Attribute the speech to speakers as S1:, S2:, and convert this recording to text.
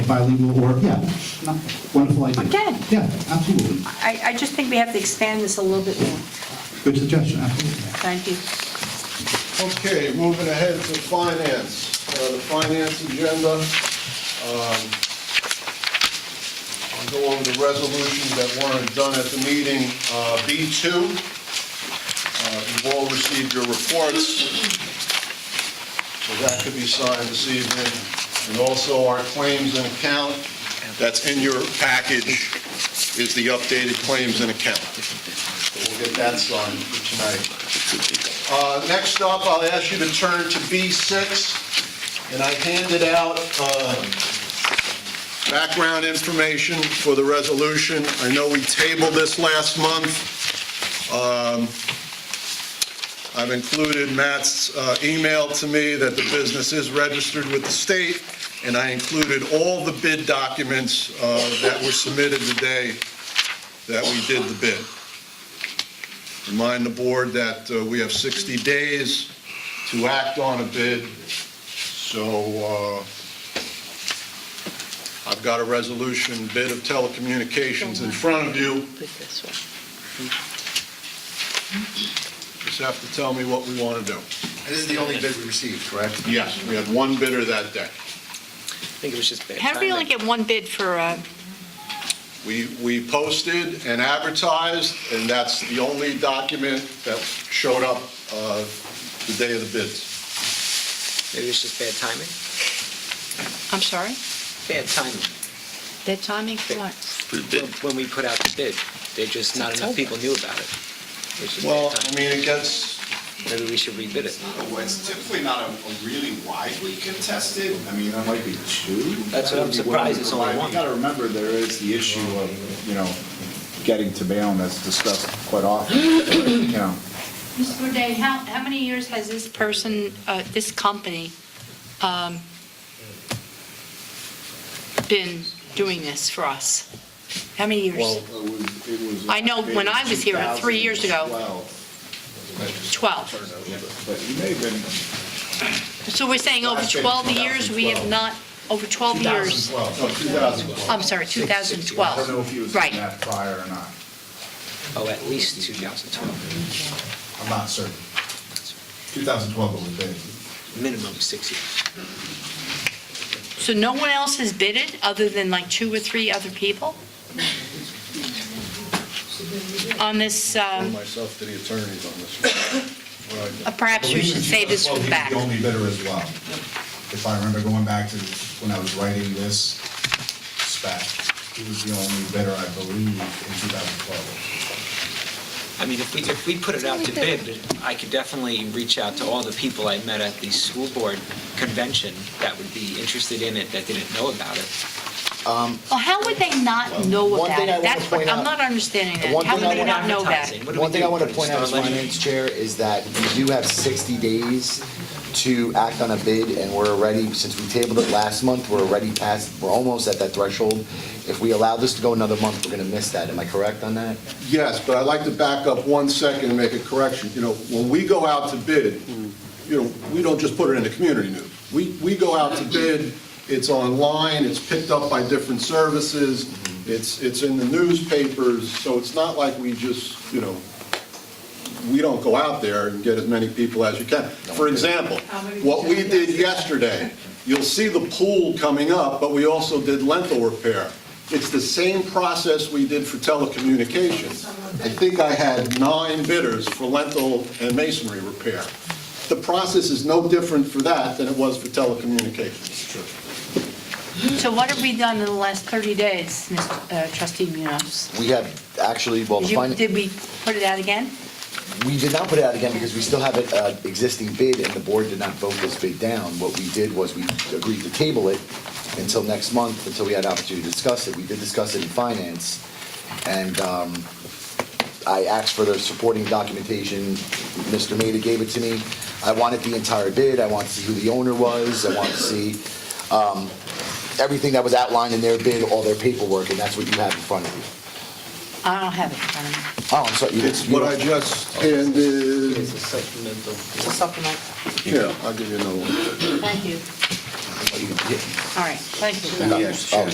S1: bilingual or, yeah, no, wonderful idea.
S2: Okay.
S1: Yeah, absolutely.
S2: I, I just think we have to expand this a little bit more.
S1: Good suggestion, absolutely.
S2: Thank you.
S3: Okay, moving ahead to finance, Uh, the finance agenda. um, I'll go over the resolutions that weren't done at the meeting. Uh, B2, uh, you've all received your reports, so that could be signed this evening. And also our claims and account, that's in your package, is the updated claims and account. So we'll get that signed for tonight. Uh, Next up, I'll ask you to turn to B6, and I handed out uh, background information for the resolution. I know we tabled this last month. Um, I've included Matt's uh, email to me that the business is registered with the state, and I included all the bid documents uh, that were submitted today that we did the bid. Remind the board that uh, we have 60 days to act on a bid, so uh, I've got a resolution bid of telecommunications in front of you. Just have to tell me what we want to do.
S4: This is the only bid we received, correct?
S3: Yes, we had one bidder that day.
S5: I think it was just bad
S6: How do we only
S5: timing.
S6: get one bid for, uh,
S3: We, we posted and advertised, and that's the only document that showed up uh, the day of the bids.
S5: Maybe it's just bad timing?
S6: I'm sorry,
S5: Bad timing.
S6: their timing for what?
S5: When- When we put out the bid, there just not enough people knew about it. It's just
S3: Well,
S5: bad
S3: I
S5: timing.
S3: mean, it gets,
S5: Maybe we should rebid it.
S4: Well, It's typically not a a really widely contested, I mean, there might be two.
S5: That's what I'm surprised it's only one.
S7: You gotta remember, there is the issue of, you know, getting to bail, and that's discussed quite often, you know.
S6: Mr. Bourdain, how, how many years has this person, uh, this company, um, been doing this for us? How many
S4: Well,
S6: years?
S4: it was- it was.
S6: I know when I was here three years ago.
S4: 2012,
S6: 12.
S7: But you may have been,
S6: So we're saying over 12 years, we have not, over 12 years,
S3: 2012.
S4: No, 2012.
S6: I'm sorry,
S7: I don't know if he was in
S6: 2012. Right,
S7: that prior or not.
S5: Oh, at least 2012,
S4: I'm not certain. 2012 was the bid.
S5: minimum six years.
S6: so no one else has bidded other than like two or three other people? On this,
S3: I
S6: um,
S3: myself to the attorneys on this. one. What I got.
S6: uh, perhaps we should say this from the back.
S4: The only bidder as well, if I remember going back to when I was writing this spec, he was the only bidder, I believe, in 2012.
S5: I mean, if we, if we put it out to bid, I could definitely reach out to all the people I met at the school board convention that would be interested in it, that didn't know about it.
S6: Well, how would they not know
S8: One
S6: about
S8: thing
S6: it?
S8: I wanna
S6: That's what,
S8: point
S6: I'm
S8: out-
S6: not understanding
S8: the
S6: that.
S8: one
S6: How
S8: thing I
S6: would they
S8: wanna-
S6: not know that?
S5: Advertising. What do we
S8: One thing
S5: do?
S8: I want
S5: Put
S8: to
S5: it
S8: point
S5: in
S8: out as
S5: Star Ledger?
S8: finance chair is that you do have 60 days to act on a bid, and we're already, since we tabled it last month, we're already past, we're almost at that threshold. If we allow this to go another month, we're going to miss that. Am I correct on that?
S3: Yes, but I'd like to back up one second and make a correction. You know, when we go out to bid, you know, we don't just put it in the community news. We, we go out to bid, it's online, it's picked up by different services, it's, it's in the newspapers, so it's not like we just, you know, we don't go out there and get as many people as you can. For example, what we did yesterday, you'll see the pool coming up, but we also did lentil repair. It's the same process we did for telecommunications. I think I had nine bidders for lentil and masonry repair. The process is no different for that than it was for telecommunications.
S6: So what have we done in the last 30 days, Mr. uh, trustee Munoz?
S8: We have actually, well,
S6: Did
S8: the
S6: you-
S8: fin-
S6: Did we put it out again?
S8: we did not put it out again because we still have an uh, existing bid, and the board did not vote this bid down. What we did was we agreed to table it until next month, until we had an opportunity to discuss it. We did discuss it in finance, and um, I asked for the supporting documentation. Mr. Maida gave it to me. I wanted the entire bid, I wanted to see who the owner was, I wanted to see um, everything that was outlined in their bid, all their paperwork, and that's what you have in front of you.
S6: I don't have it in front of me.
S8: Oh, I'm sorry. you-
S3: It's what I just handed,
S5: It's a supplemental.
S6: It's a supplement.
S3: yeah, I'll give you another one.
S6: Thank you. you know,
S8: All right, thank you.
S6: yeah.